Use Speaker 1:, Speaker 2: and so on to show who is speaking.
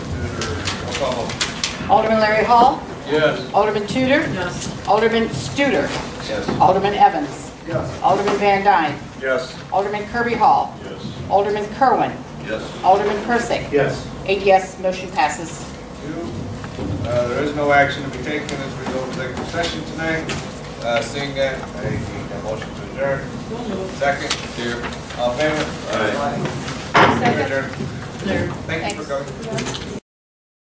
Speaker 1: call.
Speaker 2: Alderman Larry Hall.
Speaker 1: Yes.
Speaker 2: Alderman Tudor.
Speaker 3: Yes.
Speaker 2: Alderman Studer.
Speaker 1: Yes.
Speaker 2: Alderman Evans.
Speaker 1: Yes.
Speaker 2: Alderman Van Dyne.
Speaker 1: Yes.
Speaker 2: Alderman Kirby Hall.
Speaker 1: Yes.
Speaker 2: Alderman Kerwin.
Speaker 1: Yes.
Speaker 2: Alderman Persick.
Speaker 1: Yes.
Speaker 2: Eight yes, motion passes.
Speaker 1: Uh, There is no action to be taken as we go to executive session tonight. Uh, Seeing that, I need a motion to adjourn.
Speaker 3: Don't move.
Speaker 1: Second. Here. All in favor?
Speaker 4: Aye.
Speaker 1: We're adjourned.
Speaker 3: There.
Speaker 1: Thank you for coming.